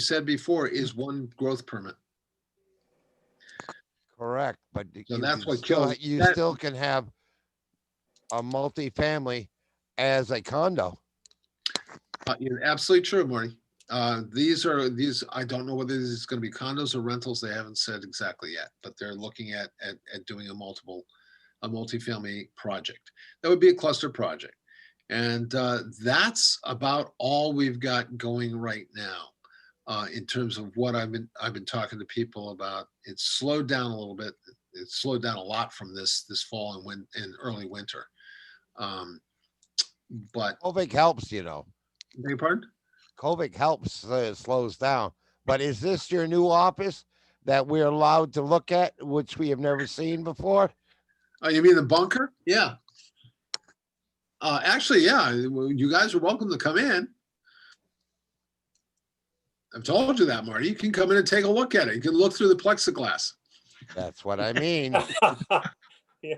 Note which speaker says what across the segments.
Speaker 1: said before, is one growth permit.
Speaker 2: Correct, but. y-
Speaker 1: So
Speaker 2: you
Speaker 1: that's
Speaker 2: can
Speaker 1: what
Speaker 2: still
Speaker 1: kills-
Speaker 2: ha- You
Speaker 1: that-
Speaker 2: still can have a multifamily as a condo.
Speaker 1: Uh, You're absolutely true, Marty. Uh, These are, these, I don't know whether this is going to be condos or rentals. They haven't said exactly yet, but they're looking at, at, at doing a multiple, a multifamily project. That would be a cluster project. And uh, that's about all we've got going right now uh, in terms of what I've been, I've been talking to people about. It's slowed down a little bit. It's slowed down a lot from this, this fall and when, and early winter. Um, But,
Speaker 2: COVID helps, you know.
Speaker 1: beg your pardon?
Speaker 2: COVID helps, uh, slows down. But is this your new office that we're allowed to look at, which we have never seen before?
Speaker 1: Oh, you mean the bunker? Yeah. Uh, actually, yeah, well, you guys are welcome to come in. I've told you that, Marty. You can come in and take a look at it. You can look through the plexiglass.
Speaker 2: That's what I mean.
Speaker 3: Yeah,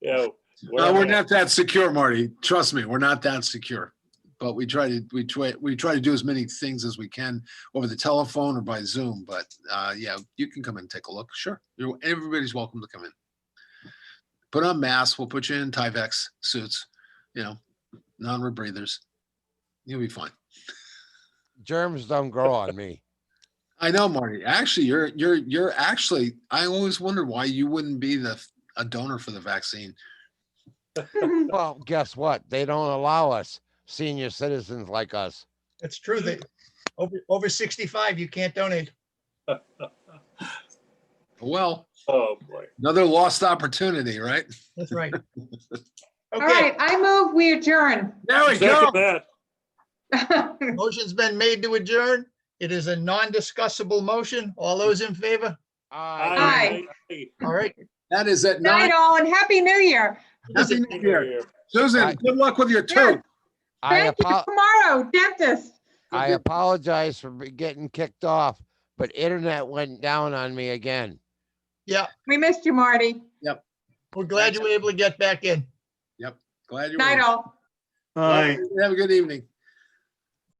Speaker 3: Yeah,
Speaker 1: Uh, we're
Speaker 3: well,
Speaker 1: not that secure, Marty. Trust me, we're not that secure. But we try to, we try, we try to do as many things as we can over the telephone or by Zoom. But, uh, yeah, you can come in and take a look. Sure. You're, everybody's welcome to come in. Put on masks. We'll put you in Tyvek suits, you know, non-rebreathers. You'll be fine.
Speaker 2: Germs don't grow on me.
Speaker 1: I know, Marty. Actually, you're, you're, you're actually, I always wondered why you wouldn't be the, a donor for the vaccine.
Speaker 2: Well, guess what? They don't allow us senior citizens like us.
Speaker 4: That's true. They, over, over 65, you can't donate.
Speaker 1: Well,
Speaker 3: oh boy.
Speaker 1: another lost opportunity, right?
Speaker 4: That's right.
Speaker 5: All
Speaker 4: Okay,
Speaker 5: right, I move we adjourn.
Speaker 1: There we go.
Speaker 3: Second that.
Speaker 4: motion's been made to adjourn. It is a non-discussable motion. All those in favor?
Speaker 2: I
Speaker 3: Aye,
Speaker 5: Aye.
Speaker 3: aye,
Speaker 4: All right.
Speaker 1: That is at nine.
Speaker 5: Night all and Happy New Year.
Speaker 1: Happy
Speaker 3: aye.
Speaker 1: New Year. Susan,
Speaker 2: Bye.
Speaker 1: good luck with your
Speaker 5: Yes.
Speaker 1: tooth.
Speaker 2: I,
Speaker 5: Thank you.
Speaker 2: apo-
Speaker 5: Tomorrow, dentist.
Speaker 2: I apologize for be- getting kicked off, but internet went down on me again.
Speaker 5: We missed you, Marty.
Speaker 4: We're glad you were able to get back in.
Speaker 1: Glad you're.
Speaker 5: Night all.
Speaker 1: Have a good evening.